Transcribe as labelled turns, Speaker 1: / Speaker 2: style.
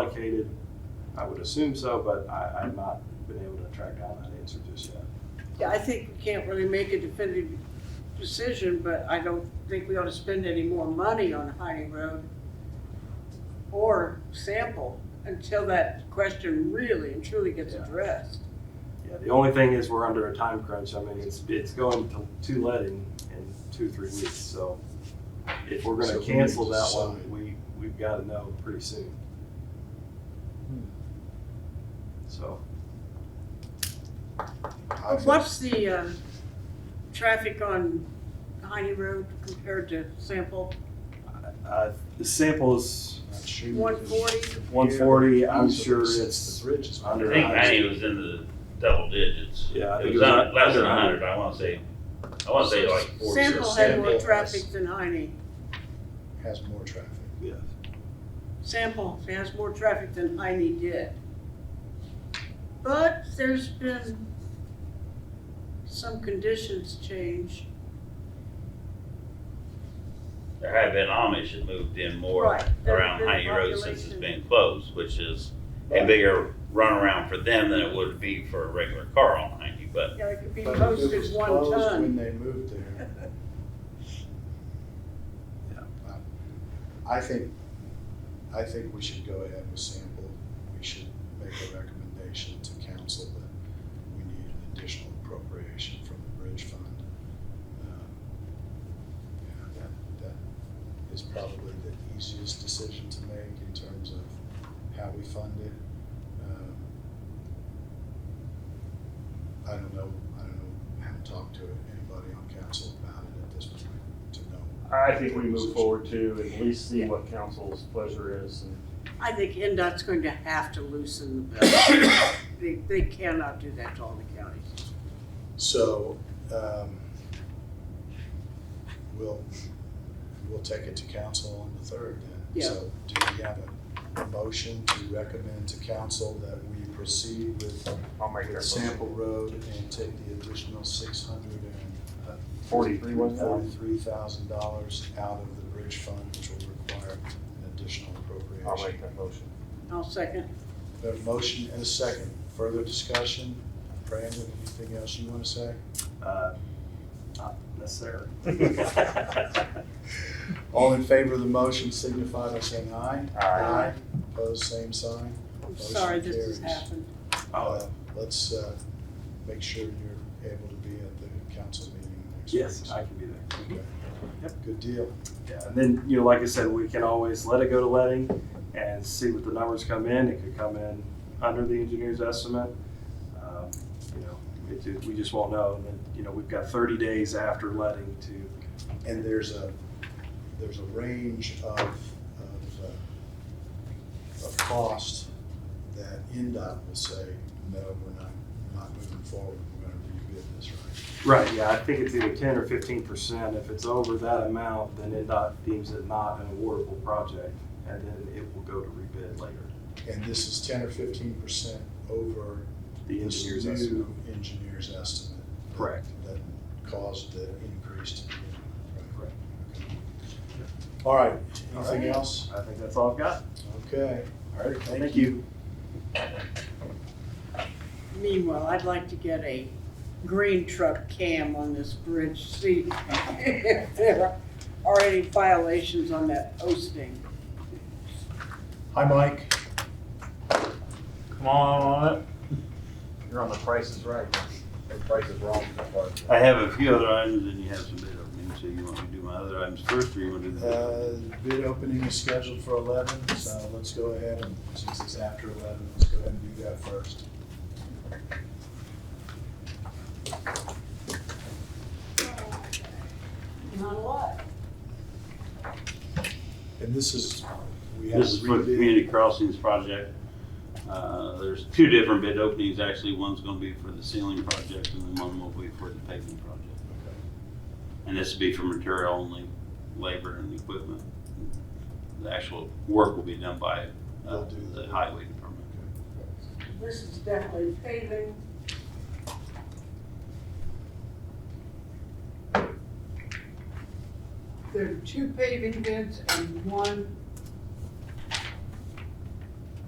Speaker 1: allocated? I would assume so, but I, I've not been able to track down that answer just yet.
Speaker 2: Yeah, I think we can't really make a definitive decision, but I don't think we ought to spend any more money on Heine Road or sample until that question really and truly gets
Speaker 1: Yeah.
Speaker 2: addressed.
Speaker 1: Yeah, the only thing is we're under a time crunch. I mean, it's, it's going to, to let in, in two, three weeks, so if we're
Speaker 3: So
Speaker 1: gonna
Speaker 3: we need
Speaker 1: cancel
Speaker 3: to
Speaker 1: that
Speaker 3: decide.
Speaker 1: one, we, we've gotta know pretty soon. So,
Speaker 3: I think-
Speaker 2: What's the, um, traffic on Heine Road compared to sample?
Speaker 1: uh, the sample is
Speaker 3: Not sure.
Speaker 2: 140?
Speaker 1: one forty, I'm
Speaker 3: Yeah.
Speaker 1: sure
Speaker 3: Since
Speaker 1: it's,
Speaker 3: the ridge is-
Speaker 1: under-
Speaker 4: I think Maddie was in the double digits.
Speaker 1: Yeah, I
Speaker 4: It
Speaker 1: think
Speaker 4: was
Speaker 1: it was
Speaker 4: un- less than
Speaker 1: under
Speaker 4: a hundred, I wanna say, I wanna say like forty.
Speaker 2: Sample had more
Speaker 3: Sample has-
Speaker 2: traffic than Heine.
Speaker 3: Has more traffic.
Speaker 1: yeah.
Speaker 2: Sample has more traffic than Heine did. But there's been some conditions change.
Speaker 4: There have been Amish that moved in more
Speaker 2: Right, there's
Speaker 4: around
Speaker 2: been
Speaker 4: Heine Road since it's
Speaker 2: population.
Speaker 4: been closed, which is a bigger runaround for them than it would be for a regular car on Heine, but
Speaker 2: Yeah, it could be
Speaker 3: But if it was
Speaker 2: posted one
Speaker 3: closed
Speaker 2: ton.
Speaker 3: When they moved there.
Speaker 1: Yeah.
Speaker 3: I think, I think we should go ahead with sample. We should make a recommendation to council that we need an additional appropriation from the bridge fund. Um, Yeah, that, that is probably the easiest decision to make in terms of how we fund it. Um, I don't know, I don't know, I haven't talked to anybody on council about it at this point to know.
Speaker 5: I think we move forward to at least see what council's pleasure is. and-
Speaker 2: I think NDOT's going to have to loosen the belt. They, they cannot do that to all the counties.
Speaker 3: So, um, we'll, we'll take it to council on the third then.
Speaker 2: Yeah.
Speaker 3: So do we have a motion to recommend to council that we proceed with
Speaker 5: I'll make
Speaker 3: with
Speaker 5: that
Speaker 3: Sample Road and take the additional six hundred and
Speaker 5: Forty-three was that?
Speaker 3: forty-three thousand dollars out of the bridge fund, which will require an additional appropriation.
Speaker 5: I'll make that motion.
Speaker 2: I'll second.
Speaker 3: We have a motion and a second. Further discussion? Brandon, anything else you want to say?
Speaker 1: Uh, not necessarily.
Speaker 3: All in favor of the motion signify by saying aye.
Speaker 5: Aye.
Speaker 3: Opposed, same sign.
Speaker 2: I'm
Speaker 3: Motion
Speaker 2: sorry this has
Speaker 3: carries.
Speaker 2: happened.
Speaker 1: Oh,
Speaker 3: Uh, Let's uh, make sure you're able to be at the council meeting next week.
Speaker 1: Yes, I can be there.
Speaker 3: Okay.
Speaker 1: Yep.
Speaker 3: Good deal.
Speaker 1: Yeah, and then, you know, like I said, we can always let it go to letting and see what the numbers come in. It could come in under the engineer's estimate. Um, You know, it, it- we just won't know. And then, you know, we've got thirty days after letting to,
Speaker 3: And there's a, there's a range of, of, uh, of cost that NDOT will say, no, we're not, we're not moving forward, we're gonna rebid this, right?
Speaker 1: right, yeah, I think it's either ten or fifteen percent. If it's over that amount, then NDOT deems it not an awardable project. And then it will go to rebid later.
Speaker 3: And this is ten or fifteen percent over
Speaker 1: The
Speaker 3: this
Speaker 1: engineer's
Speaker 3: new
Speaker 1: estimate.
Speaker 3: Engineer's estimate. that-
Speaker 1: Correct.
Speaker 3: That caused the increase to be.
Speaker 1: Correct.
Speaker 3: All right,
Speaker 1: All
Speaker 3: anything
Speaker 1: right.
Speaker 3: else?
Speaker 1: I think that's all I've got.
Speaker 3: Okay, all right,
Speaker 1: Thank
Speaker 3: thank you.
Speaker 2: Meanwhile, I'd like to get a green truck cam on this bridge, see if there are any violations on that posting.
Speaker 3: Hi, Mike.
Speaker 5: Come on up. You're on the prices right. The price is wrong.
Speaker 4: I have a few other items and you have some bid openings, so you want me to do my other items first or you wanna do that?
Speaker 3: Uh, Bid opening is scheduled for eleven, so let's go ahead and, since it's after eleven, let's go ahead and do that first.
Speaker 2: Not a lot.
Speaker 3: And this is, we have
Speaker 4: This is for the
Speaker 3: rebid.
Speaker 4: community crossings project. Uh, there's two different bid openings, actually, one's gonna be for the ceiling project and then one will be for the paving project. And this would be for material only, labor and equipment. The actual work will be done by uh,
Speaker 3: They'll do
Speaker 4: the
Speaker 3: the-
Speaker 4: highway department.
Speaker 2: This is definitely paving. There are two paving bids and one